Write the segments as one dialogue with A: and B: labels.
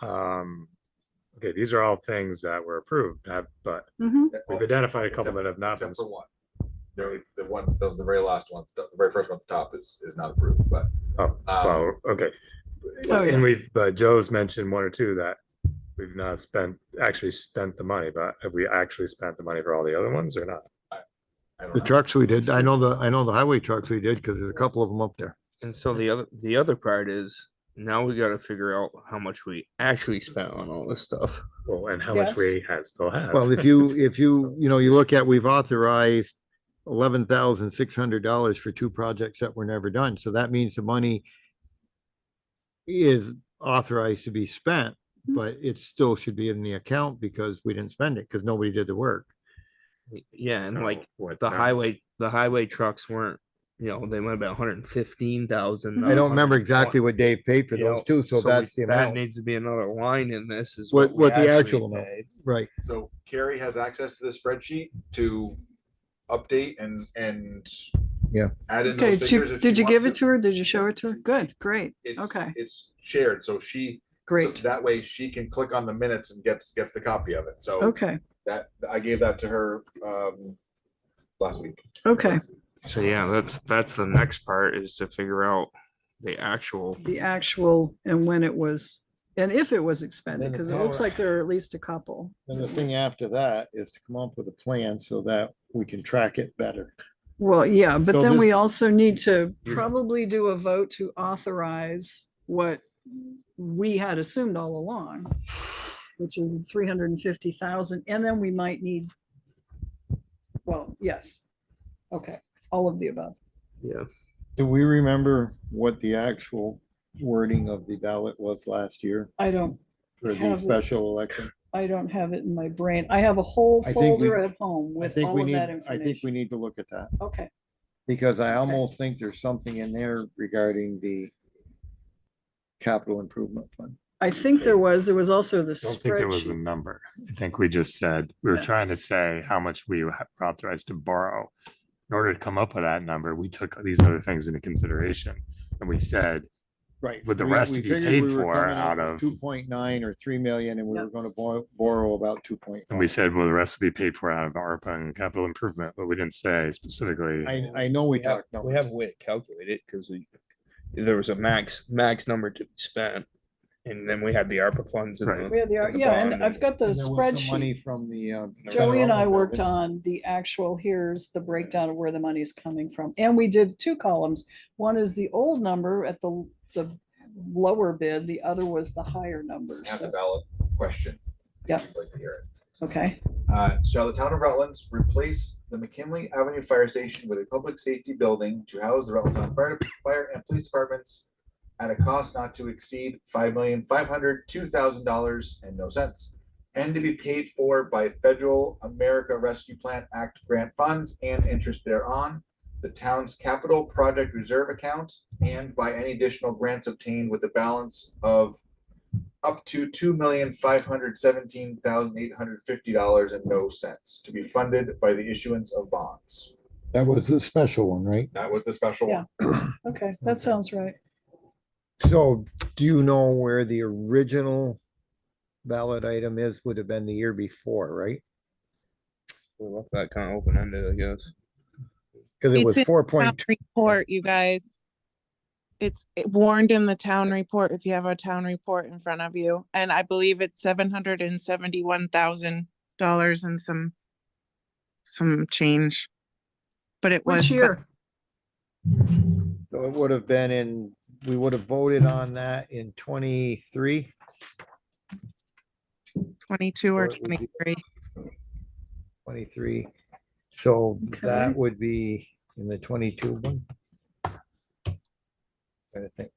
A: Um, okay, these are all things that were approved, uh, but
B: Mhm.
C: That-
A: we've identified a couple that have not been.
C: Except for one. The only- the one, the, the very last one, the very first one at the top is, is not approved, but.
A: Oh,
C: um,
A: Well, okay,
B: Oh, yeah.
A: and we've, uh, Joe's mentioned one or two that we've not spent, actually spent the money, but have we actually spent the money for all the other ones or not?
C: I don't
D: The
C: know.
D: trucks we did, I know the, I know the highway trucks we did, because there's a couple of them up there.
E: And so the other the other part is now we got to figure out how much we actually spent on all this stuff.
A: Well, and how much
B: Yes.
A: we had still have.
D: Well, if you, if you, you know, you look at, we've authorized eleven thousand six hundred dollars for two projects that were never done, so that means the money is authorized to be spent, but it still should be in the account because we didn't spend it, because nobody did the work.
E: Y- Yeah, and
A: So,
E: like
A: what,
E: the
A: that's-
E: highway the highway trucks weren't. You know, they might have been one hundred fifteen thousand.
D: I don't remember exactly what Dave paid for those two, so that's the
E: That
D: amount,
E: needs to be another line in this. Is
D: What-
E: we
D: what the
E: actually
D: actual amount.
E: paid.
D: right?
C: So Carrie has access to this spreadsheet to update and, and.
D: Yeah.
C: Add in
B: Okay,
C: those
B: did
C: figures
B: you,
C: if
B: did
C: she
B: you give it
C: wants
B: to her? Did you show it to her? Good, great,
C: It's-
B: okay,
C: It's shared, so she, so
B: great,
C: that way she can click on the minutes and gets, gets the copy of it. So
B: okay,
C: that, I gave that to her, um, last week.
B: okay.
E: So yeah, that's that's the next part is to figure out the actual.
B: The actual and when it was, and if it was expended,
D: Then the
B: because it looks
D: power-
B: like there are at least a couple.
D: And the thing after that is to come up with a plan so that we can track it better.
B: Well, yeah, but
D: So
B: then we
D: this-
B: also need to
E: Yeah.
B: probably do a vote to authorize what we had assumed all along, which is three hundred and fifty thousand, and then we might need, well, yes, okay, all of the above.
E: Yeah,
D: Do we remember what the actual wording of the ballot was last year
B: I don't,
D: for the
B: Have it.
D: special election?
B: I don't have it in my brain. I have a whole
D: I think we-
B: folder at home
D: I
B: with
D: think
B: all
D: we
B: of
D: need,
B: that
D: I think we
B: information.
D: need to look at that,
B: Okay,
D: because I almost think there's something in there regarding the capital improvement fund.
B: I think there was, there was also the
A: I don't think there was a
B: spreadsheet.
A: number. I think we just said, we were
B: Yeah.
A: trying to say how much we were authorized to borrow. In order to come up with that number, we took these other things into consideration and we said,
D: Right.
A: With the rest to be paid for out of-
D: Two point nine or three million, and we were
B: Yep.
D: gonna borrow, borrow about two point.
A: and we said, well, the rest will be paid for out of ARPA and capital improvement, but we didn't say specifically.
D: I, I know we
E: we have
D: talked.
E: we have
D: numbers.
E: a way to calculate it because we there was a max max number to be spent, and then we had the ARPA funds. And
A: Right.
E: the,
B: We had the,
E: the
B: yeah, and
E: bond
B: I've
E: and-
B: got the
D: And there was some Money
B: spreadsheet.
D: from the. uh,
B: Joey and
D: Federal
B: I worked
D: government.
B: on the actual, here's the breakdown of where the money's coming from. And we did two columns. One is the old number at the, the lower bid, the other was the higher number.
C: Have the
B: So,
C: ballot question. if
B: Yeah.
C: you'd like to hear it.
B: okay,
C: Uh, shall the town of Rutland's replace the McKinley Avenue Fire Station with a public safety building to house the Rutland Town Fire, Fire and Police Departments at a cost not to exceed five million, five hundred, two thousand dollars and no cents, and to be paid for by Federal America Rescue Plan Act grant funds and interest thereon, the town's capital project reserve account, and by any additional grants obtained with the balance of up to two million five hundred seventeen thousand eight hundred fifty dollars and no cents to be funded by the issuance of bonds.
D: That was a special one, right?
C: That was the special
B: Yeah.
C: one.
B: okay, that sounds right.
D: So do you know where the original ballot item is, would have been the year before, right?
E: we left that kind of open ended, I guess.
D: Cause it
F: It's
D: was
F: in
D: four
F: town
D: point,
F: report, you guys. It's it warned in the town report if you have a town report in front of you, and I believe it's seven hundred and seventy-one thousand dollars and some some change. But it was,
B: Which
F: for-
B: year?
D: so it would have been in, we would have voted on that in twenty-three.
F: twenty-two
D: Or
F: or
D: it would be-
F: twenty-three.
D: 23. So
B: Okay.
D: that would be in the 22 one. Trying to think.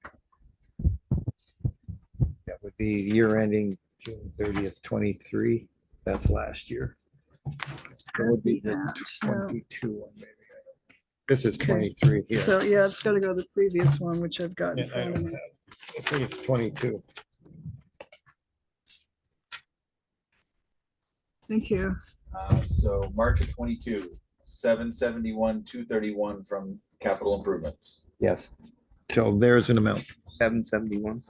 D: That would be year ending June 30th, 23. That's last year. That would be the
B: That, yeah.
D: 22 one, maybe. This is
B: Okay.
D: 23 here.
B: So, yeah, it's gotta go to the previous one, which I've got
D: Yeah,
B: in
D: I
B: front of
D: don't
B: me.
D: have- I think it's 22.
B: Thank you.
C: Uh, so March of twenty-two, seven seventy-one, two thirty-one from capital improvements.
D: Yes. So there's an amount.
E: Seven seventy one.